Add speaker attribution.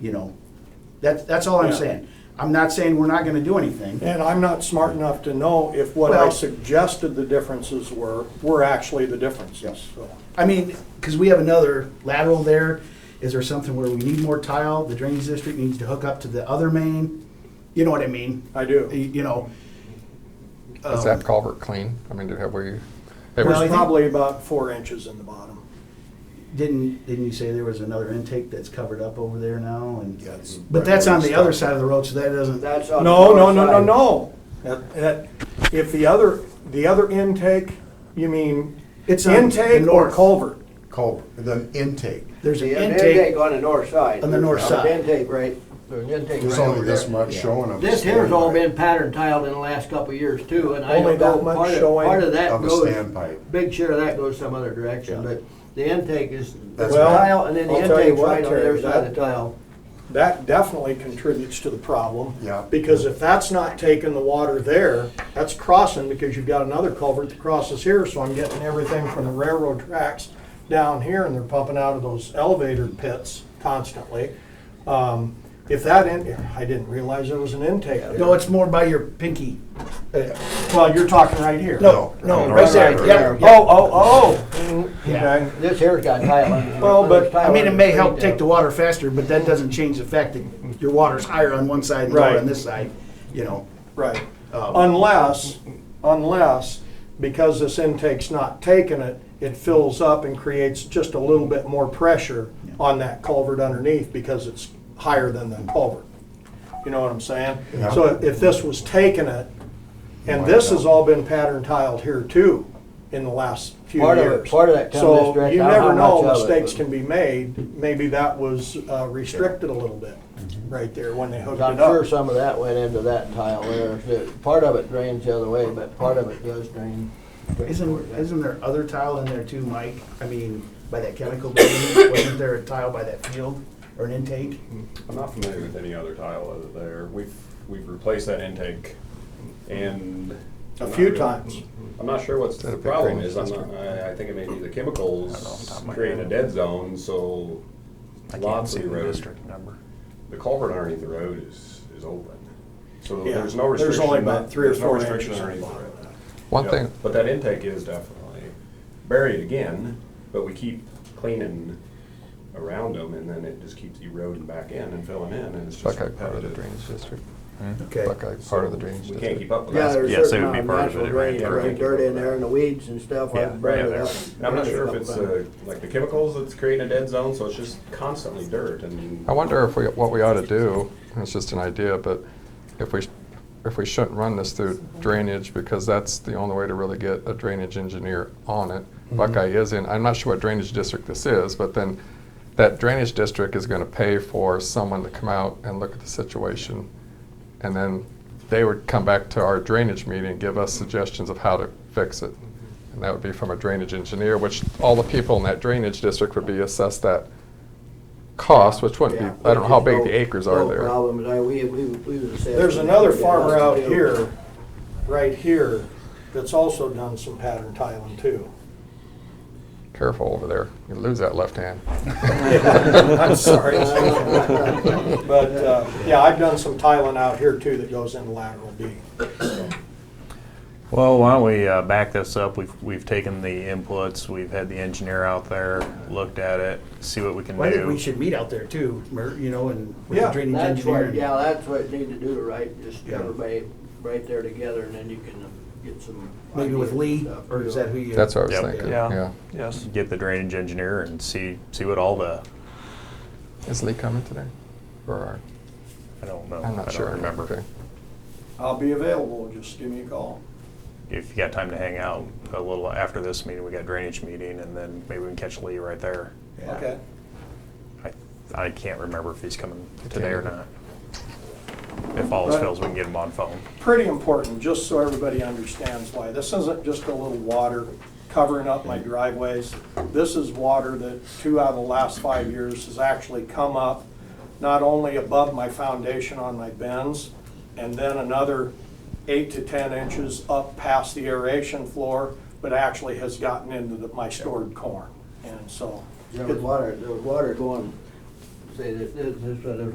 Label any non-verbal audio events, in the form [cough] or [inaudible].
Speaker 1: you know, that's, that's all I'm
Speaker 2: Yeah.
Speaker 1: saying. I'm not saying we're not gonna do anything.
Speaker 2: And I'm not smart enough to know if what I
Speaker 1: Well-
Speaker 2: suggested the differences were, were actually the differences,
Speaker 1: Yes.
Speaker 2: so.
Speaker 1: I mean, because we have another lateral there, is there something where we need more tile? The drainage district needs to hook up to the other main? You know what I mean?
Speaker 2: I
Speaker 1: You
Speaker 2: do.
Speaker 1: you know?
Speaker 3: Is
Speaker 1: um,
Speaker 3: that culvert clean? I mean, did, have we? it
Speaker 1: Well, I
Speaker 2: There's
Speaker 1: think-
Speaker 3: was-
Speaker 2: probably about four inches in the bottom.
Speaker 1: Didn't, didn't you say there was another intake that's covered up over there now and?
Speaker 4: Yeah, it's-
Speaker 1: But that's on the other side of the road, so that doesn't,
Speaker 5: That's on the
Speaker 2: No, no,
Speaker 5: north
Speaker 2: no, no,
Speaker 5: side.
Speaker 2: no. That- that- If the other, the other intake, you mean
Speaker 1: It's on the
Speaker 2: intake or
Speaker 1: north.
Speaker 2: culvert?
Speaker 4: Culvert, the intake.
Speaker 1: there's an
Speaker 5: The intake
Speaker 1: intake.
Speaker 5: on the north side.
Speaker 1: On the north
Speaker 5: There's
Speaker 1: side.
Speaker 5: an Intake right, there's an intake
Speaker 4: There's
Speaker 5: right over
Speaker 4: only this
Speaker 5: there.
Speaker 4: much showing of.
Speaker 5: This
Speaker 4: a
Speaker 5: here's all
Speaker 4: standpipe,
Speaker 5: been pattern tiled in the last couple of years too, and I
Speaker 2: Only
Speaker 5: don't know,
Speaker 2: that much
Speaker 5: part of,
Speaker 2: showing
Speaker 5: part of that
Speaker 4: Of a
Speaker 5: goes,
Speaker 4: standpipe.
Speaker 5: big share of that goes some other direction, but the intake is the
Speaker 4: That's bad.
Speaker 5: tile, and then the
Speaker 2: I'll tell you
Speaker 5: intake's
Speaker 2: what,
Speaker 5: right on the
Speaker 2: Terry,
Speaker 5: other side of
Speaker 2: that-
Speaker 5: the tile.
Speaker 2: That definitely contributes to the problem.
Speaker 4: Yeah.
Speaker 2: Because if that's not taking the water there, that's crossing because you've got another culvert that crosses here, so I'm getting everything from the railroad tracks down here and they're pumping out of those elevator pits constantly. Um, If that in, I didn't realize there was an intake there.
Speaker 1: No, it's more by your pinky.
Speaker 2: Well, you're talking right here.
Speaker 1: No, no,
Speaker 4: No,
Speaker 1: right
Speaker 4: right
Speaker 1: there,
Speaker 4: there.
Speaker 1: yeah.
Speaker 2: Oh, oh, oh.
Speaker 1: Yeah.
Speaker 2: Okay.
Speaker 5: This here's got tile on
Speaker 2: [laughs]
Speaker 5: it.
Speaker 2: Well, but,
Speaker 5: There's tile
Speaker 1: I mean, it
Speaker 5: on
Speaker 1: may
Speaker 5: street
Speaker 1: help
Speaker 5: there.
Speaker 1: take the water faster, but that doesn't change the fact that your water's higher on one side and lower
Speaker 2: Right.
Speaker 1: on this side, you know.
Speaker 2: Right.
Speaker 1: Um,
Speaker 2: Unless, unless, because this intake's not taking it, it fills up and creates just a little bit more pressure on that culvert underneath because it's higher than the culvert. You know what I'm saying?
Speaker 4: Yeah.
Speaker 2: So if this was taking it, and this has all been pattern tiled here too in the last few
Speaker 5: Part of it-
Speaker 2: years.
Speaker 5: part of that comes this
Speaker 2: So
Speaker 5: direct,
Speaker 2: you
Speaker 5: I don't know
Speaker 2: never
Speaker 5: how
Speaker 2: know,
Speaker 5: much of it,
Speaker 2: mistakes
Speaker 5: but-
Speaker 2: can be made. Maybe that was uh, restricted a little bit right there when they hooked it
Speaker 5: I'm
Speaker 2: up.
Speaker 5: sure some of that went into that tile there. The- Part of it drains the other way, but part of it does drain.
Speaker 1: Isn't, isn't there other tile in there too, Mike? I mean, by that chemical building, wasn't there a tile by that field or an intake?
Speaker 6: I'm not familiar with any other tile other there. We've, we've replaced that intake and.
Speaker 2: A
Speaker 6: I'm not
Speaker 2: few
Speaker 6: really-
Speaker 2: times.
Speaker 6: I'm not sure what's
Speaker 3: That a
Speaker 6: the
Speaker 3: big
Speaker 6: problem
Speaker 3: drainage
Speaker 6: is. I'm not,
Speaker 3: district?
Speaker 6: I, I think it may be the
Speaker 3: I don't know off the top
Speaker 6: chemicals
Speaker 3: of my
Speaker 6: creating a
Speaker 3: head.
Speaker 6: dead zone, so
Speaker 3: I can't
Speaker 6: lots
Speaker 3: see
Speaker 6: of
Speaker 3: the
Speaker 6: roads,
Speaker 3: district number.
Speaker 6: the culvert underneath the road is, is open. So
Speaker 2: Yeah,
Speaker 6: there's no restriction.
Speaker 2: There's only about
Speaker 6: that-
Speaker 2: three or
Speaker 6: there's no
Speaker 2: four
Speaker 6: restriction
Speaker 2: inches.
Speaker 6: underneath the road.
Speaker 3: One
Speaker 6: Yep.
Speaker 3: thing,
Speaker 6: But that intake is definitely buried again, but we keep cleaning around them and then it just keeps eroding back in and filling in and it's just
Speaker 3: Buckeye part of the
Speaker 6: repetitive.
Speaker 3: drainage district.
Speaker 1: Okay.
Speaker 3: Buckeye part of the drainage
Speaker 6: We can't
Speaker 3: district.
Speaker 6: keep up with
Speaker 5: Yeah,
Speaker 6: that.
Speaker 5: there's
Speaker 7: yes,
Speaker 5: certain
Speaker 7: it would be
Speaker 5: amount
Speaker 7: part
Speaker 5: of
Speaker 7: of it,
Speaker 5: natural
Speaker 7: it ran
Speaker 5: drain,
Speaker 6: through.
Speaker 5: there's dirt in there and the weeds and stuff,
Speaker 7: Yeah,
Speaker 5: I've brought
Speaker 6: Yeah,
Speaker 5: it up.
Speaker 6: there's- I'm not sure if it's, uh, like the chemicals that's creating a dead zone, so it's just constantly dirt and.
Speaker 3: I wonder if we, what we ought to do, and it's just an idea, but if we, sh- if we shouldn't run this through drainage, because that's the only way to really get a drainage engineer on it. Buckeye is in, I'm not sure what drainage district this is, but then that drainage district is gonna pay for someone to come out and look at the situation. And then they would come back to our drainage meeting and give us suggestions of how to fix it. And that would be from a drainage engineer, which all the people in that drainage district would be assessed that cost, which wouldn't
Speaker 5: Yeah,
Speaker 3: be, I don't know how big the
Speaker 5: there's
Speaker 3: acres
Speaker 5: no-
Speaker 3: are
Speaker 5: no
Speaker 3: there.
Speaker 5: problem, I- we- we- we was assessed
Speaker 2: There's
Speaker 5: with
Speaker 2: another
Speaker 5: that.
Speaker 2: farmer out here, right here, that's also done some pattern tiling [laughs] too.
Speaker 3: Careful over there, you lose that left hand.
Speaker 2: [laughs] I'm
Speaker 7: [laughs]
Speaker 2: sorry. But, uh, yeah, I've done some tiling out here too that goes into lateral D.
Speaker 7: Well, why don't we uh, back this up? We've, we've taken the inputs, we've had the engineer out there, looked at it, see what we can
Speaker 1: Well, I think we
Speaker 7: do.
Speaker 1: should meet out there too, Mer- you know, and with the
Speaker 2: Yeah.
Speaker 1: drainage
Speaker 5: That's what, yeah,
Speaker 1: engineer.
Speaker 5: that's what you need to do, right, just
Speaker 1: Yeah.
Speaker 5: everybody right there together and then you can uh, get some.
Speaker 1: Maybe with
Speaker 5: ideas
Speaker 1: Lee,
Speaker 5: and stuff,
Speaker 1: or
Speaker 5: you
Speaker 1: is
Speaker 5: know.
Speaker 1: that who you?
Speaker 3: That's what I was
Speaker 7: Yep.
Speaker 3: thinking,
Speaker 7: Yeah.
Speaker 3: yeah.
Speaker 7: Yes. Get the drainage engineer and see see what all the
Speaker 3: Is Lee coming today? Or, are-
Speaker 7: I don't know.
Speaker 3: I'm
Speaker 7: I
Speaker 3: not
Speaker 7: don't
Speaker 3: sure.
Speaker 7: remember.
Speaker 3: Okay.
Speaker 2: I'll be available, just give me a call.
Speaker 7: If you got time to hang out a little after this meeting, we got drainage meeting, and then maybe we can catch Lee right there.
Speaker 1: Yeah.
Speaker 2: Okay.
Speaker 7: I I can't remember if he's coming
Speaker 3: Okay.
Speaker 7: today or not. If all else
Speaker 2: Right.
Speaker 7: fails, we can get him on phone.
Speaker 2: Pretty important, just so everybody understands why. This isn't just a little water covering up my driveways. This is water that two out of the last five years has actually come up, not only above my foundation on my bends, and then another eight to 10 inches up past the aeration floor, but actually has gotten into the- my stored corn. And so,
Speaker 5: There was water, there was water going, say, this, this, this, there's